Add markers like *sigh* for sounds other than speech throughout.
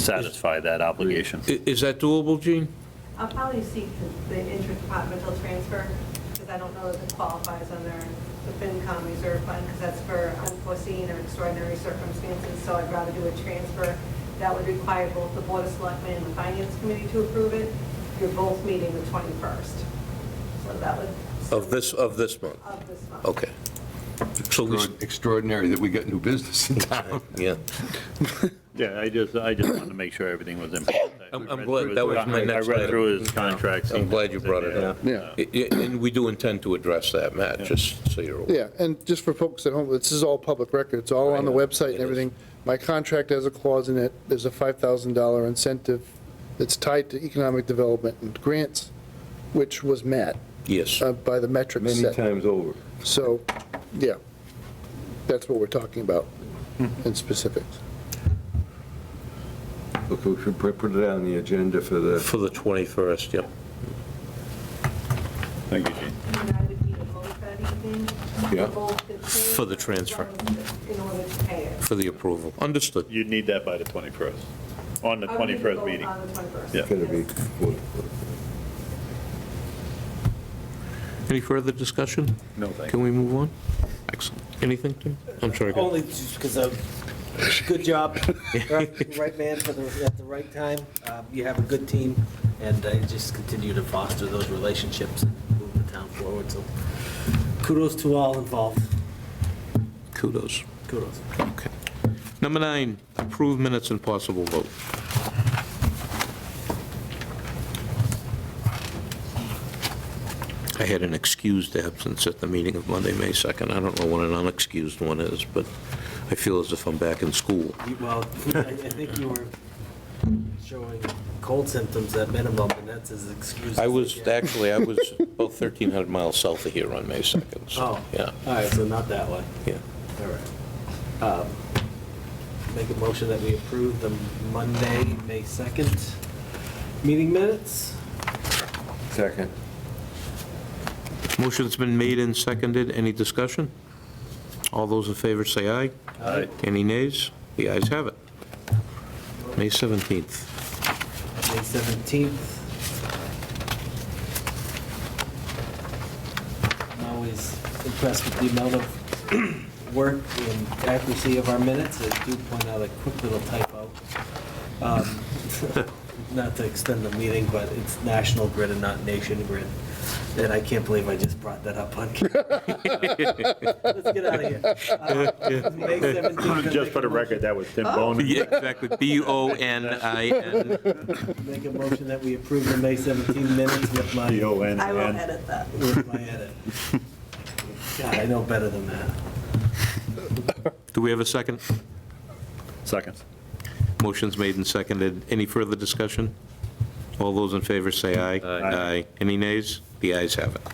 satisfy that obligation. I- Is that doable, Gene? I'll probably seek the- the interdepartmental transfer, because I don't know if it qualifies under the FinCom reserve fund, because that's for unforeseen or extraordinary circumstances, so I'd rather do a transfer. That would require both the Board of Selectmen and the Finance Committee to approve it. You're both meeting the 21st, so that would. Of this, of this month? Of this month. Okay. So we, s- Extraordinary that we got new business in town. yeah. Yeah, I just, I just wanted to make sure everything was in. I'm- I'm glad- that was my next I read item. through his contract. I'm glad you brought it up. Yeah. I- I- And we do intend to address that, Matt, just so you're aware. Yeah, and just for folks at home, this is all public record, it's all on the website It and is. everything. My contract has a clause in it, there's a $5,000 incentive that's tied to economic development and grants, which was met Yes. uh, by the metrics set. times over. So, yeah, that's what we're talking about in specifics. Okay, we should put put it on the agenda for the, For the 21st, yep. Thank you, Gene. And I would need a vote that evening. Yeah. Both the For the transfer. In order to pay it. For the approval. Understood. You'd need that by the 21st, on the I would need to 21st vote meeting. On the 21st. Yeah. it's gonna be, Yes. Any further discussion? No, thank Can we move on? Excellent. Anything, Tim? I'm sorry. go ahead. Only because of, good job, right right man for the, at the right time. Um, You have a good team, and I just continue to foster those relationships and move the town forward, so kudos to all involved, Kudos. kudos. Okay. Number nine, approve minutes and possible vote. I had an excused absence at the meeting of Monday, May 2nd. I don't know what an unexcused one is, but I feel as if I'm back in school. You- Well, I I think you were showing cold symptoms at minimum, and that's as excuse. I as they was, get. actually, I was about 1,300 miles south of here on May 2nd, so, Oh, yeah, all right, so not that one. yeah. All right. Um, Make a motion that we approve the Monday, May 2nd meeting minutes. second. Motion's been made and seconded. Any discussion? All those in favor say aye. Uh, Aye. Any nays? The ayes have it. May 17th. May 17th. I'm always impressed with the amount of *clears throat* work and accuracy of our minutes. I do point out a quick little typo. Um, *laughs* Not to extend the meeting, but it's National Grid and not Nation Grid. And I can't believe I just brought that up *laughs* on camera. Let's get out of *laughs* here. Uh, May 17th. Just for the record, that was Tim Oh. Bone. Yeah, exactly. B-O-N-I-N. Make a motion that we approve the May 17 minutes with my T-O-N-N. I will edit that. with my edit. God, I know better than that. Do we have a second? Seconds. Motion's made and seconded. Any further discussion? All those in favor say aye. Aye. Any nays? The ayes have it.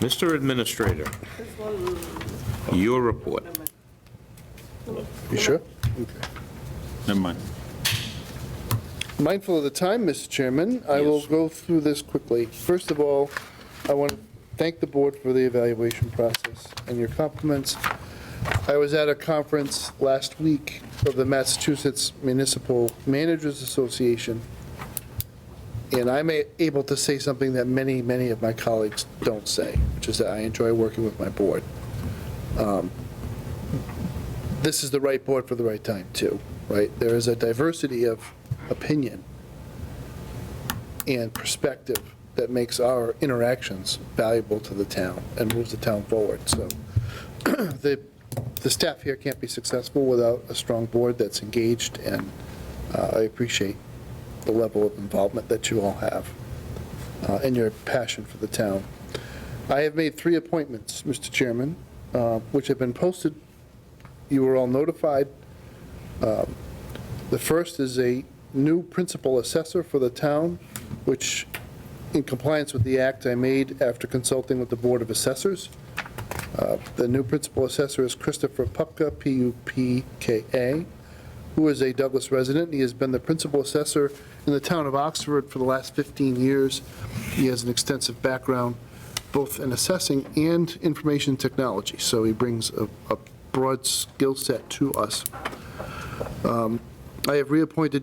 Mr. Administrator, This one, mm, your report. number You sure? Never mind. Mindful of the time, Mr. Chairman, I will Yes. go through this quickly. First of all, I want to thank the board for the evaluation process and your compliments. I was at a conference last week of the Massachusetts Municipal Managers Association, and I'm a- able to say something that many, many of my colleagues don't say, which is that I enjoy working with my board. Um, This is the right board for the right time, too, right? There is a diversity of opinion and perspective that makes our interactions valuable to the town and moves the town forward. So *clears throat* the, the staff here can't be successful without a strong board that's engaged, and uh, I appreciate the level of involvement that you all have uh, and your passion for the town. I have made three appointments, Mr. Chairman, uh, which have been posted. You were all notified. Um, The first is a new principal assessor for the town, which, in compliance with the act I made after consulting with the Board of Assessors, uh, the new principal assessor is Christopher Pupka, P-U-P-K-A, who is a Douglas resident. He has been the principal assessor in the town of Oxford for the last 15 years. He has an extensive background both in assessing and information technology, so he brings a a broad skill set to us. Um, I have reappointed